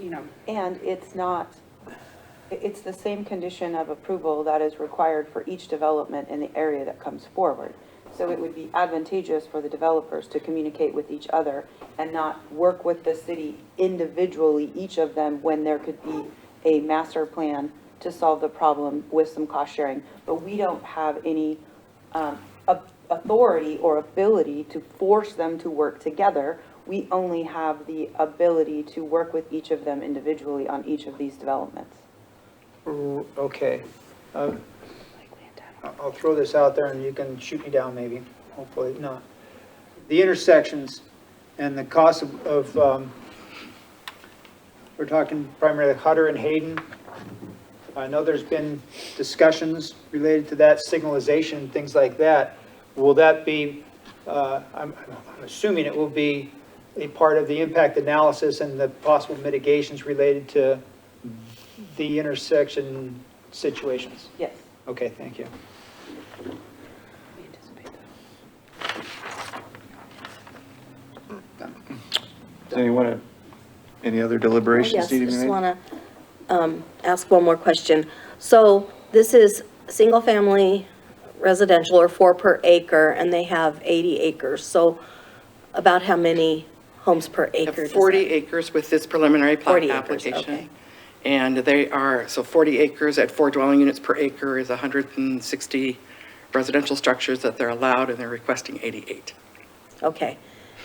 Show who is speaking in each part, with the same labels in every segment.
Speaker 1: you know,
Speaker 2: And it's not, i- it's the same condition of approval that is required for each development in the area that comes forward. So it would be advantageous for the developers to communicate with each other and not work with the city individually, each of them, when there could be a master plan to solve the problem with some cost sharing. But we don't have any um, a- authority or ability to force them to work together. We only have the ability to work with each of them individually on each of these developments.
Speaker 3: Mm, Okay. Um, I- I'll throw this out there and you can shoot me down maybe, hopefully not. The intersections and the cost of- of, um, we're talking primarily Hutter and Hayden. I know there's been discussions related to that signalization, things like that. Will that be, uh, I'm I'm assuming it will be a part of the impact analysis and the possible mitigations related to the intersection situations.
Speaker 2: Yes.
Speaker 3: Okay, thank you.
Speaker 4: Does anyone have any other deliberations
Speaker 5: Yes,
Speaker 4: needing to be
Speaker 5: just
Speaker 4: made?
Speaker 5: want to ask one more question. So this is single-family residential or four per acre, and they have 80 acres. So about how many homes per
Speaker 6: have
Speaker 5: acre? does that-
Speaker 6: 40 acres with this preliminary plat
Speaker 5: 40 acres, okay.
Speaker 6: application. And they are, so 40 acres at four dwelling units per acre is 160 residential structures that they're allowed, and they're requesting 88.
Speaker 5: Okay.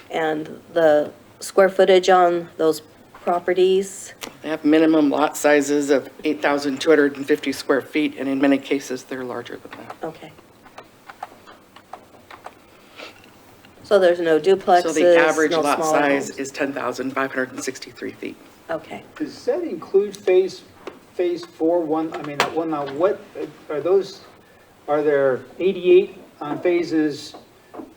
Speaker 5: And the square footage on those properties?
Speaker 6: They have minimum lot sizes of 8,250 square feet, and in many cases, they're larger than that.
Speaker 5: Okay. So there's no duplexes,
Speaker 6: So the average
Speaker 5: no
Speaker 6: lot
Speaker 5: smaller
Speaker 6: size
Speaker 5: homes?
Speaker 6: is 10,563 feet.
Speaker 5: Okay.
Speaker 3: Does that include phase, phase four, one, I mean, one, now what, uh, are those, are there 88 on phases,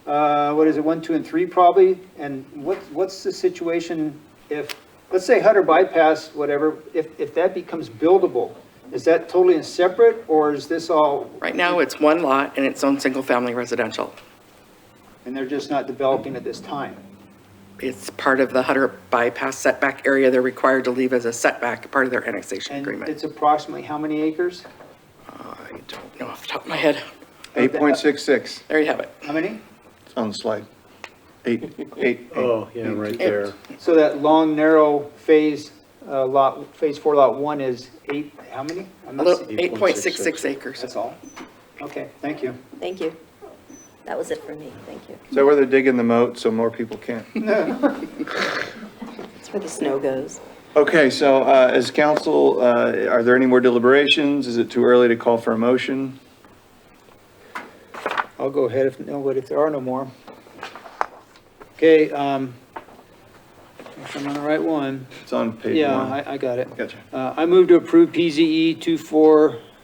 Speaker 3: uh, what is it, one, two, and three probably? And what, what's the situation if, let's say Hutter bypass, whatever, if, if that becomes buildable? Is that totally and separate, or is this all,
Speaker 6: Right now, it's one lot and its own single-family residential.
Speaker 3: and they're just not developing at this time?
Speaker 6: It's part of the Hutter bypass setback area they're required to leave as a setback, part of their annexation
Speaker 3: And
Speaker 6: agreement.
Speaker 3: it's approximately how many acres?
Speaker 6: I don't know off the top of my head.
Speaker 4: 8.66
Speaker 6: There you have it.
Speaker 3: How many?
Speaker 4: It's on the slide. Eight, eight,
Speaker 7: Oh, yeah, right there.
Speaker 3: So that long, narrow phase, uh, lot, phase four, lot one is eight, how many? I'm
Speaker 6: A
Speaker 3: not
Speaker 6: little,
Speaker 3: seeing-
Speaker 6: 8.66 acres.
Speaker 3: That's all? Okay, thank you.
Speaker 5: Thank you. That was it for me. Thank you.
Speaker 4: is that where they're digging the moat so more people can't?
Speaker 5: That's where the snow goes.
Speaker 4: Okay, so uh, as council, uh, are there any more deliberations? Is it too early to call for a motion?
Speaker 3: I'll go ahead if, no, but if there are no more. Okay, um, if I'm on the right one,
Speaker 4: It's on page one.
Speaker 3: yeah, I, I got it.
Speaker 4: Gotcha.
Speaker 3: Uh, I move to approve E PZE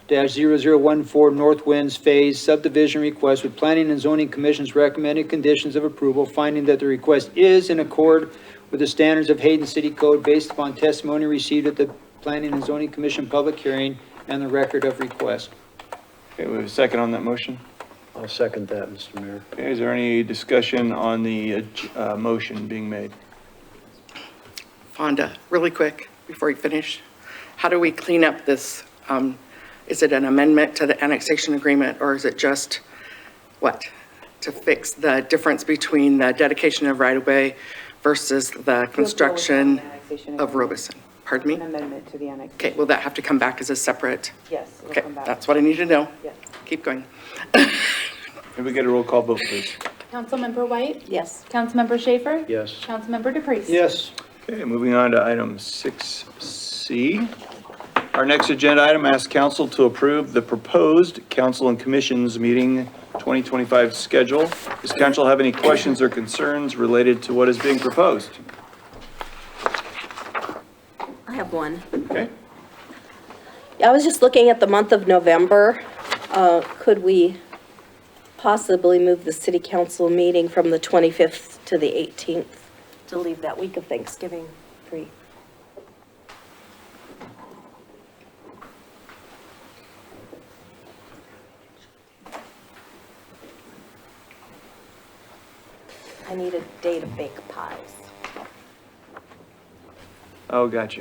Speaker 3: 24-0014 North Winds Phase subdivision request with Planning and Zoning Commission's recommended conditions of approval, finding that the request is in accord with the standards of Hayden City Code based upon testimony received at the Planning and Zoning Commission public hearing and the record of request.
Speaker 4: Okay, we have a second on that motion.
Speaker 7: I'll second that, Mr. Mayor.
Speaker 4: Okay, is there any discussion on the uh, j- uh, motion being made?
Speaker 6: Fonda, really quick, before you finish. How do we clean up this? um, Is it an amendment to the annexation agreement, or is it just, what? To fix the difference between the dedication of right-of-way versus the construction
Speaker 2: annexation
Speaker 6: of
Speaker 2: agreement.
Speaker 6: Robeson? Pardon
Speaker 2: An
Speaker 6: me?
Speaker 2: amendment to the annex.
Speaker 6: Okay, will that have to come back as a separate?
Speaker 2: Yes, it'll
Speaker 6: Okay,
Speaker 2: come back.
Speaker 6: that's what I need to know.
Speaker 2: Yes.
Speaker 6: Keep going.
Speaker 4: Can we get a roll call vote, please?
Speaker 8: Councilmember White?
Speaker 5: Yes.
Speaker 8: Councilmember Schaefer?
Speaker 7: Yes.
Speaker 8: Councilmember DePriest?
Speaker 3: Yes.
Speaker 4: Okay, moving on to item 6C. Our next agenda item asks council to approve the proposed council and commissions meeting 2025 schedule. Does council have any questions or concerns related to what is being proposed?
Speaker 5: I have one.
Speaker 4: Okay,
Speaker 5: I was just looking at the month of November. Uh, Could we possibly move the city council meeting from the 25th to the 18th to leave that week of Thanksgiving free? I need a day to bake pies.
Speaker 4: oh, gotcha.